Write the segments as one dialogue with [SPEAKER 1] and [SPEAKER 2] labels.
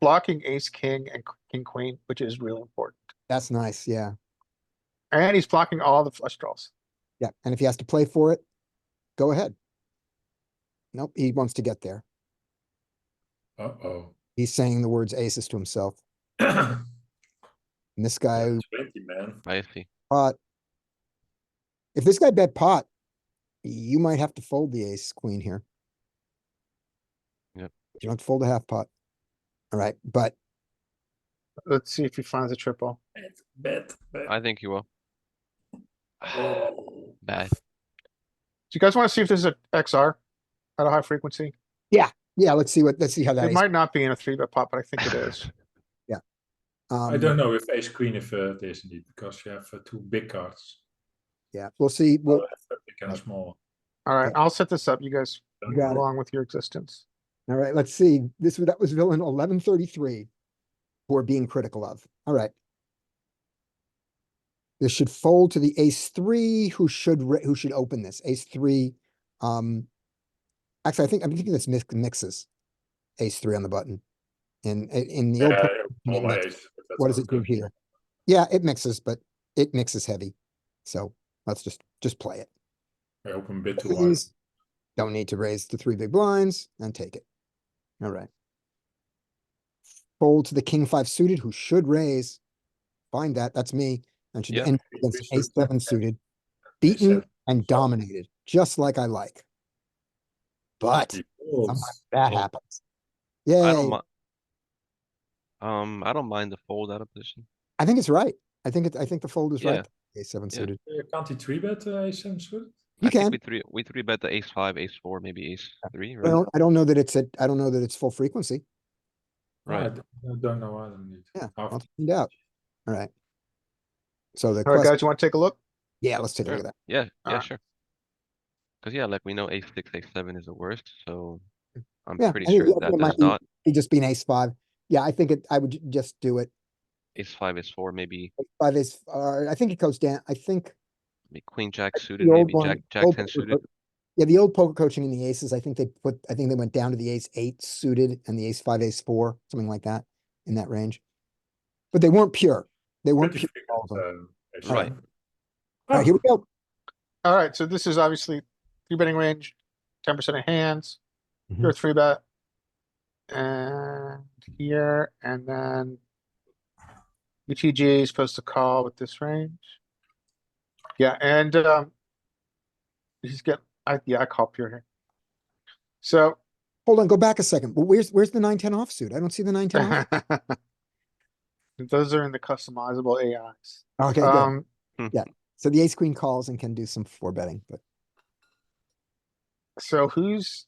[SPEAKER 1] blocking ace, king and king, queen, which is really important.
[SPEAKER 2] That's nice, yeah.
[SPEAKER 1] And he's blocking all the flush draws.
[SPEAKER 2] Yeah, and if he has to play for it, go ahead. Nope, he wants to get there.
[SPEAKER 3] Uh-oh.
[SPEAKER 2] He's saying the words aces to himself. And this guy
[SPEAKER 3] Twenty, man.
[SPEAKER 4] I see.
[SPEAKER 2] pot. If this guy bet pot, you might have to fold the ace queen here.
[SPEAKER 4] Yep.
[SPEAKER 2] You don't have to fold a half pot. All right, but
[SPEAKER 1] Let's see if he finds a triple.
[SPEAKER 3] Bet, bet, bet.
[SPEAKER 4] I think you will.
[SPEAKER 3] Oh.
[SPEAKER 4] Bad.
[SPEAKER 1] Do you guys want to see if this is a XR at a high frequency?
[SPEAKER 2] yeah, let's see what, let's see how that
[SPEAKER 1] It
[SPEAKER 2] is.
[SPEAKER 1] might not be in a three bet pot, but I think it is.
[SPEAKER 3] I
[SPEAKER 2] Um,
[SPEAKER 3] don't know if ace queen if uh, it is indeed because you have uh, two big cards.
[SPEAKER 2] Yeah, we'll see.
[SPEAKER 3] Well,
[SPEAKER 2] Well, uh,
[SPEAKER 3] a big and a small.
[SPEAKER 1] Alright, I'll set this up. You guys
[SPEAKER 2] You got it.
[SPEAKER 1] along with your existence.
[SPEAKER 2] all right, let's see. This, was that was villain eleven thirty-three. We're being critical of. All right. This should fold to the ace three, who should, ra- who should open this. Ace three, um. Actually, I think, I'm thinking this mix- mixes. Ace three on the button. In, in- in the. old
[SPEAKER 3] Yeah,
[SPEAKER 2] pro-
[SPEAKER 3] all
[SPEAKER 2] it
[SPEAKER 3] my
[SPEAKER 2] mixed.
[SPEAKER 3] ace, but that's
[SPEAKER 2] What does
[SPEAKER 3] not
[SPEAKER 2] it do
[SPEAKER 3] good.
[SPEAKER 2] here? Yeah, it mixes, but it mixes heavy. So let's just, just play it.
[SPEAKER 3] I open a bit too wide.
[SPEAKER 2] Please. Don't need to raise the three big blinds and take it. Alright. Fold to the king five suited who should raise. Find that, that's me, and should
[SPEAKER 4] Yeah.
[SPEAKER 2] end
[SPEAKER 3] We
[SPEAKER 2] against
[SPEAKER 3] should.
[SPEAKER 2] ace seven suited. Beaten
[SPEAKER 3] seven.
[SPEAKER 2] and dominated, just like I like. But
[SPEAKER 3] Folds.
[SPEAKER 2] sometimes that
[SPEAKER 3] Oh.
[SPEAKER 2] happens.
[SPEAKER 4] I
[SPEAKER 2] Yay,
[SPEAKER 4] don't mind. Um, I don't mind the fold out of position.
[SPEAKER 2] I think it's right. I think it, I think the fold is
[SPEAKER 4] Yeah.
[SPEAKER 2] right. Ace seven
[SPEAKER 4] Yeah.
[SPEAKER 2] suited.
[SPEAKER 3] Uh, Can't he three bet uh, ace seven suited?
[SPEAKER 2] You
[SPEAKER 4] I think
[SPEAKER 2] can.
[SPEAKER 4] We three, we three bet the ace five, ace four, maybe ace three,
[SPEAKER 2] I
[SPEAKER 4] right?
[SPEAKER 2] don't, I don't know that it's at, I don't know that it's full frequency.
[SPEAKER 3] Right. I
[SPEAKER 4] Right.
[SPEAKER 3] d- I don't know either. indeed.
[SPEAKER 2] Yeah,
[SPEAKER 3] Half-
[SPEAKER 2] I'll find out. Alright. So the
[SPEAKER 1] Alright,
[SPEAKER 2] question,
[SPEAKER 1] guys, you want to take a look?
[SPEAKER 2] yeah, let's take a
[SPEAKER 4] Sure.
[SPEAKER 2] look at that.
[SPEAKER 4] Yeah,
[SPEAKER 2] uh,
[SPEAKER 4] yeah,
[SPEAKER 1] Alright.
[SPEAKER 4] sure. Cause yeah, like we know ace six, ace seven is the worst, so I'm
[SPEAKER 2] Yeah,
[SPEAKER 4] pretty
[SPEAKER 2] I think
[SPEAKER 4] sure
[SPEAKER 2] the other
[SPEAKER 4] that
[SPEAKER 2] one might
[SPEAKER 4] does
[SPEAKER 2] be-
[SPEAKER 4] not.
[SPEAKER 2] It'd just be an ace five. Yeah, I think it, I would ju- just do it.
[SPEAKER 4] Ace five, ace four, maybe,
[SPEAKER 2] Ace Five is, uh, I think it goes down, I think.
[SPEAKER 4] maybe queen jack
[SPEAKER 2] the
[SPEAKER 4] suited,
[SPEAKER 2] old
[SPEAKER 4] maybe
[SPEAKER 2] one-
[SPEAKER 4] jack, jack
[SPEAKER 2] old
[SPEAKER 4] ten
[SPEAKER 2] poker
[SPEAKER 4] suited.
[SPEAKER 2] co- Yeah, the old poker coaching and the aces, I think they put, I think they went down to the ace eight suited and the ace five, ace four, something like that, in that range. But they weren't pure. They weren't
[SPEAKER 3] Pretty
[SPEAKER 2] pure. all of them.
[SPEAKER 3] frequent, uh, ace
[SPEAKER 4] Right.
[SPEAKER 3] seven.
[SPEAKER 2] All right, here we go.
[SPEAKER 1] Alright, so this is obviously three betting range, ten percent of hands, your three bet. And here, and then. UTG is supposed to call with this range. Yeah, and, um. He's get, I, yeah, I call pure here. So,
[SPEAKER 2] Hold on, go back a second. Well, where's, where's the nine, ten offsuit? I don't see the nine, ten. off-
[SPEAKER 1] Those are in the customizable AIs.
[SPEAKER 2] Okay, good.
[SPEAKER 1] Um,
[SPEAKER 2] So the ace queen calls and can do some four betting, but
[SPEAKER 1] so who's,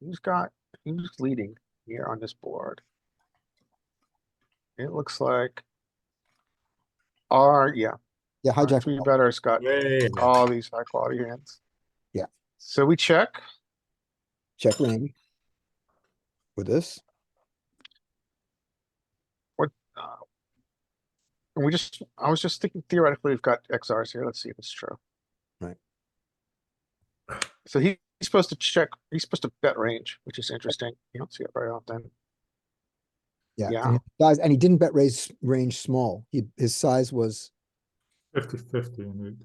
[SPEAKER 1] who's got, who's leading here on this board? It looks like. Our, yeah,
[SPEAKER 2] yeah,
[SPEAKER 1] our
[SPEAKER 2] hijack.
[SPEAKER 1] three
[SPEAKER 2] call.
[SPEAKER 1] better's got
[SPEAKER 3] Way
[SPEAKER 1] all these high quality hands.
[SPEAKER 2] Yeah.
[SPEAKER 1] So we check,
[SPEAKER 2] Check ring. With this.
[SPEAKER 1] and we just, I was just thinking theoretically, we've got XRs here, let's see if it's true.
[SPEAKER 2] Right.
[SPEAKER 1] So he- he's supposed to check, he's supposed to bet range, which is interesting, you don't see it very often.
[SPEAKER 2] Yeah.
[SPEAKER 1] Yeah.
[SPEAKER 2] and his Size, and he didn't bet raise range small. He, his size was,
[SPEAKER 3] Fifty fifty indeed.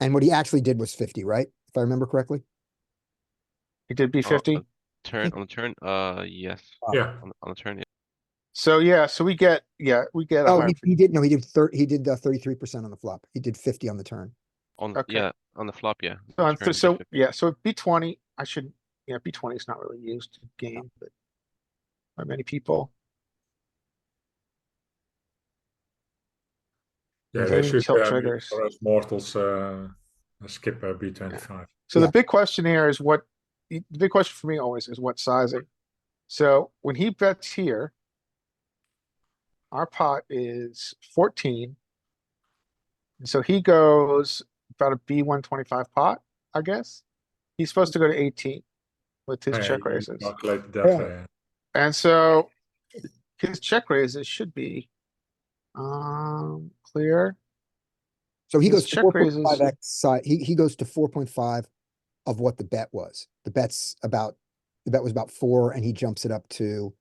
[SPEAKER 2] and what he actually did was fifty, right? If I remember correctly.
[SPEAKER 1] He did B
[SPEAKER 4] uh,
[SPEAKER 1] fifty.
[SPEAKER 4] Turn, on the turn, uh, yes,
[SPEAKER 2] Wow.
[SPEAKER 3] Yeah.
[SPEAKER 4] on, on the turn, yeah.
[SPEAKER 1] So yeah, so we get yeah, we get a
[SPEAKER 2] Oh, he,
[SPEAKER 1] hundred.
[SPEAKER 2] he did, no, he did thirty, he did uh, thirty-three percent on the flop. He did fifty on the turn.
[SPEAKER 4] on,
[SPEAKER 1] Okay.
[SPEAKER 4] yeah, on the flop, yeah. on the
[SPEAKER 1] Uh, so-
[SPEAKER 4] turn, we
[SPEAKER 1] So
[SPEAKER 4] should-
[SPEAKER 1] yeah, so B twenty, I should yeah, B twenty is not really used in game, but by many people.
[SPEAKER 3] Yeah,
[SPEAKER 1] Maybe
[SPEAKER 3] they should
[SPEAKER 1] tilt
[SPEAKER 3] uh, be-
[SPEAKER 1] triggers.
[SPEAKER 3] for us mortals uh, skip uh, B twenty five.
[SPEAKER 1] So the
[SPEAKER 2] Yeah.
[SPEAKER 1] big question here is what the the big question for me always is what sizing. So when he bets here, our pot is fourteen. And so he goes about a B one twenty five pot, I guess. He's supposed to go to eighteen with his
[SPEAKER 3] Yeah,
[SPEAKER 1] check
[SPEAKER 3] you
[SPEAKER 1] raises.
[SPEAKER 3] Calculate that.
[SPEAKER 2] Yeah.
[SPEAKER 3] way.
[SPEAKER 1] And so his check raises should be um clear.
[SPEAKER 2] So he
[SPEAKER 1] His
[SPEAKER 2] goes
[SPEAKER 1] check
[SPEAKER 2] to four point
[SPEAKER 1] raises-
[SPEAKER 2] five X side, he, he goes to four point five of what the bet was. The bet's about, the bet was about four and he jumps it up to